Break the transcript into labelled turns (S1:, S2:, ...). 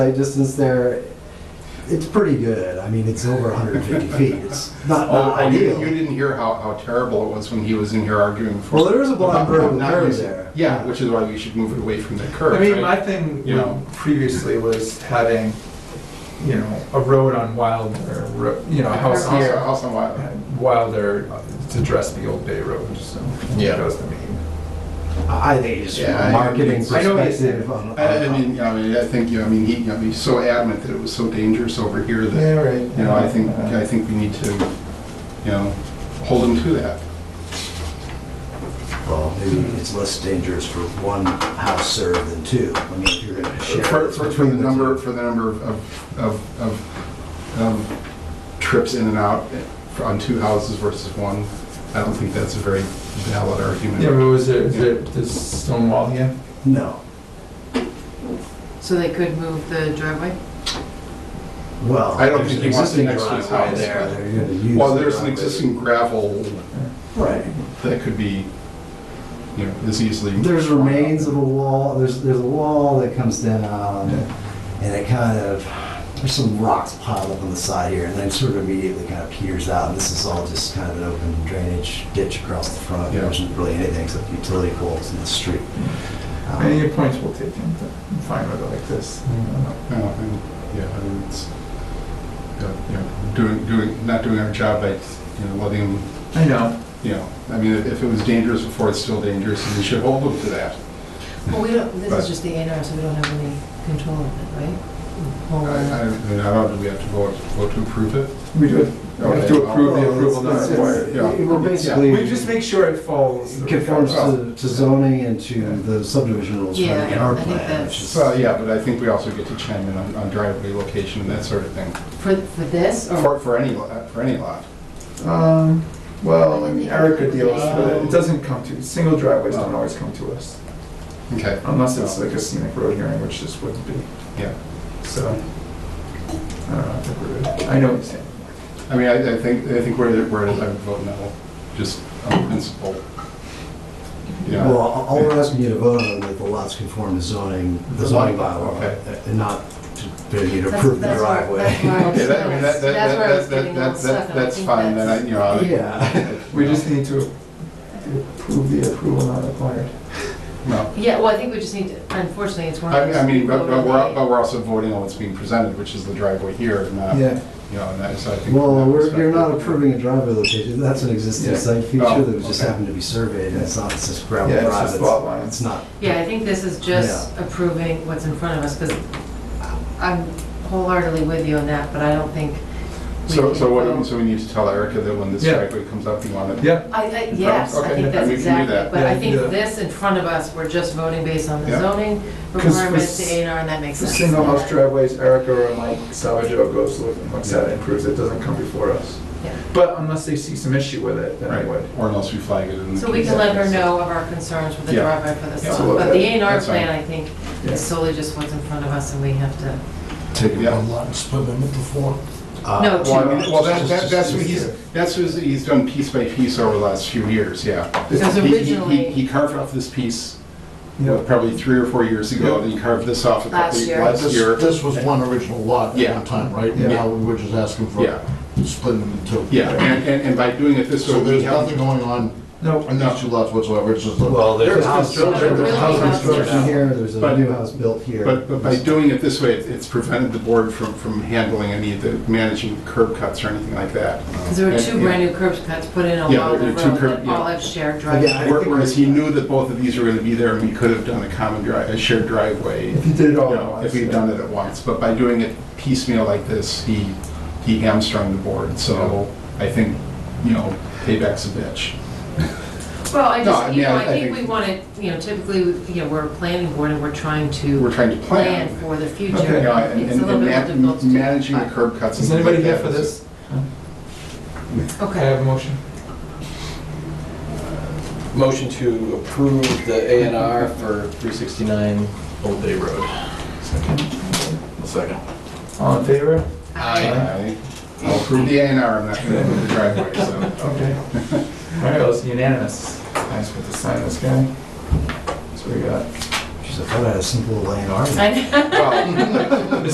S1: Sight distance there, it's pretty good. I mean, it's over 150 feet. It's not
S2: Oh,
S1: not
S2: oh, you didn't- you
S1: ideal.
S2: didn't hear how, how terrible it was when he was in here arguing for.
S1: Well, there is a blind
S2: about
S1: bird with
S2: not
S1: curve
S2: using-
S1: there.
S2: Yeah, which is why you should move it away from the curve,
S3: I mean, my
S2: right?
S3: thing,
S2: You know.
S3: previously was having, you know, a road on Wilder, ro- you know,
S2: Uh,
S3: a house
S2: Also-
S3: here,
S2: also why-
S3: and Wilder to address the old Bay Road, so.
S2: Yeah.
S3: That was the main.
S1: I think it's
S2: Yeah, I-
S1: a marketing
S2: I
S3: know what you
S1: perspective. um, uh,
S3: said.
S1: on-
S2: I, I
S1: on-
S2: mean, I mean, I think, you know, I mean, he, you know, he's so adamant that it was so dangerous over here that,
S3: right.
S2: you know, I think, I think we need to, you know, hold him to that.
S1: Well, maybe it's less dangerous for one house served than two. I mean, if you're going to share.
S2: For,
S1: it's
S2: for for the
S1: two.
S2: number, for the number of, of- of, of, of trips in and out eh, for- on two houses versus one, I don't think that's a very valid argument.
S3: Yeah, but was there, is there this stone wall here?
S1: No.
S4: So they could move the driveway?
S1: Well.
S2: I don't
S1: there's
S2: think he wants it
S1: existing
S2: next to his
S1: driveway
S2: house,
S1: There,
S2: but-
S1: they're going to use.
S2: Well,
S1: the
S2: there's an
S1: driveway.
S2: existing gravel
S1: Right.
S2: that could be, you know, as easily.
S1: There's remains of a wall, there's, there's a wall that comes down, and it kind of, there's some rocks piled up on the side here, and then sort of immediately kind of peters out, and this is all just kind of an open drainage ditch across the front,
S2: Yeah.
S1: there isn't really anything except utility poles in the street. Um,
S3: Any points will take taken, but I'm fine with it like this. Mm-hmm.
S2: Yeah, and- yeah, I mean, it's, yeah, you know, doing, doing, not doing our job by, you know, letting, him,
S3: I know,
S2: you know, I mean, if if it was dangerous before, it's still dangerous, and we should hold them to that.
S4: Well, we don't, this
S2: Right.
S4: is just the A and R, so we don't have any control of it, right?
S2: I,
S4: Well,
S2: I, I mean, I don't, do we have to vote, vote to approve it?
S3: we do it, we have to
S2: Okay.
S1: Well,
S3: approve the
S1: it's-
S3: approval not
S1: it's-
S3: required.
S1: it's-
S2: yeah.
S1: We're basically.
S3: We just make sure it falls. the
S1: Conforms
S3: requirements.
S1: to to zoning and to the subdivision rules in
S4: Yeah,
S1: our
S4: I think
S1: plan,
S4: that's-
S1: which is.
S2: Well, yeah, but I think we also get to chime in on on driveway location and that sort of thing,
S4: For, for this, or,
S2: for, for any, lo- for any lot.
S3: Um, well, I mean, Erica deals with it, it doesn't come to, single driveways don't always come to us,
S2: Okay,
S3: unless it's like a scenic road hearing, which this wouldn't be,
S2: yeah.
S3: so. I don't know, I think we're good, I know what you're saying.
S2: I mean, I, I think, I think where it, where it is, I would vote no, just on principle. Yeah.
S1: Well, all- all we're asking you to vote on that the lots conform to zoning, the zoning bylaw,
S2: Okay.
S1: and not to, that you to
S4: That's-
S1: approve the
S4: that's why- that's
S1: driveway.
S4: why-
S2: Okay, that, I mean, that, that,
S4: That's where I was
S2: that, that,
S4: getting all
S2: that,
S4: stuck,
S2: that,
S4: and I
S2: that's
S4: think
S2: fine, then I,
S4: that's-
S2: you know. I-
S1: Yeah.
S3: We just need to approve the approval not required.
S2: No,
S4: yeah, well, I think we just need to, unfortunately, it's one of
S2: I,
S4: those.
S2: I mean, but, but we're,
S4: vote
S2: but we're also voting on what's being presented, which is the driveway here, not, you know, and that, so I think.
S1: Well,
S2: from that
S1: we're, you're not
S2: perspective-
S1: approving a driveway location, that's an existing
S3: Yeah.
S1: site
S2: Oh,
S1: feature that just
S2: okay.
S1: happened to be surveyed, and it's not, it's just gravel
S3: Yeah, it's
S1: drive,
S3: just lot
S1: it's,
S3: lines.
S1: it's not.
S4: on- Yeah, I think this is just approving what's in front of us, because I'm wholeheartedly with you on that, but I don't think. we
S2: So, so
S4: can
S2: what,
S4: vote.
S2: so we need to tell Erica that when this
S3: Yeah.
S2: driveway comes up, you want it.
S3: Yeah,
S4: I, I, yes, I
S2: Okay,
S4: think
S2: then
S4: that's
S2: we can do
S4: exactly,
S2: that.
S4: but
S3: Yeah,
S4: I think
S3: yeah.
S4: this in front of us, we're just voting based on the
S2: Yeah.
S4: zoning
S3: 'Cause for
S4: requirements, the
S3: s-
S4: A and R, and that makes
S3: the
S4: sense.
S3: single house driveways, Erica or Mike Salvaggio goes, look- looks at it, improves it, doesn't come before us.
S4: Yeah.
S3: But unless they see some issue with it, then I
S2: Right,
S3: would.
S2: or unless we flag it in. the
S4: So we
S2: case
S4: can let her
S2: that-
S4: know of our concerns with the
S2: Yeah.
S4: driveway for this
S2: Yeah.
S4: lot, but the A and R
S2: That's fine.
S4: plan, I think,
S3: Yeah.
S4: is solely just what's in front of us, and we have to,
S1: Take
S2: Yeah.
S1: one lot and split them into four? uh,
S4: No,
S2: Uh, Well, I mean, well, that, that,
S1: Just-
S2: that's what he's, that's what he's done piece by piece over the last few years, yeah.
S4: because
S2: He- he- he-
S4: originally,
S2: He carved off this piece
S3: You know,
S2: probably three or four years ago, then he carved this off a couple,
S4: Last year.
S2: last
S5: This,
S2: year.
S5: this was one original lot at
S2: Yeah.
S5: one time, right?
S3: Yeah.
S5: Now we're just asking for
S2: Yeah.
S5: splitting them in two.
S2: Yeah, and, and- and by doing it this way.
S5: So
S2: we
S5: there's
S2: have-
S5: nothing going on
S3: No,
S5: in these two lots whatsoever, it's just a.
S1: Well, there's a house,
S4: construction.
S1: there's a house
S4: Really?
S1: construction here, there's a
S2: But-
S1: new house built here.
S2: But, but by doing it this way, it- it's prevented the board from, from handling any of the, managing the curb cuts or anything like that.
S4: because there were two
S2: Yeah.
S4: brand new curb cuts put in
S2: Yeah,
S4: along the
S2: there
S4: road
S2: are two curb-
S4: that
S2: yeah.
S4: all have shared
S1: Yeah, I
S4: driveways.
S2: Where-
S1: think-
S2: Whereas he knew that both of these were gonna be there, and we could have done a common dri, a shared driveway,
S3: if you did it
S2: you
S3: all. at
S2: know,
S3: once,
S2: if we'd done it at once. But by doing it piecemeal like this, he, he hamstrung the board, so I think, you know, payback's a bitch.
S4: Well, I
S2: No, I
S4: just, you
S2: mean,
S4: know,
S2: I-
S4: I
S2: I
S4: think
S2: think-
S4: we want to, you know, typically, you know, we're a planning board and we're trying
S2: We're
S4: to
S2: trying to plan.
S4: plan for the future.
S2: You know, and-
S4: It's a
S2: and- and
S4: little bit more
S2: ma-
S4: difficult to do.
S2: Managing the curb cuts. and
S3: Is anybody
S2: things
S3: here
S2: like
S3: for
S2: that is-
S3: this? I
S4: Okay,
S3: have a motion.
S6: Motion to approve the A and R for 369 Old Bay Road. Second.
S3: All in favor?
S2: Aye. I'll approve the A and R, I'm not gonna approve the driveway, so.
S3: Okay. All right, well, it's unanimous. I just put to sign this guy. That's what we got.
S1: "Oh, She's like, I had a simple land art.
S4: I know.
S2: Well,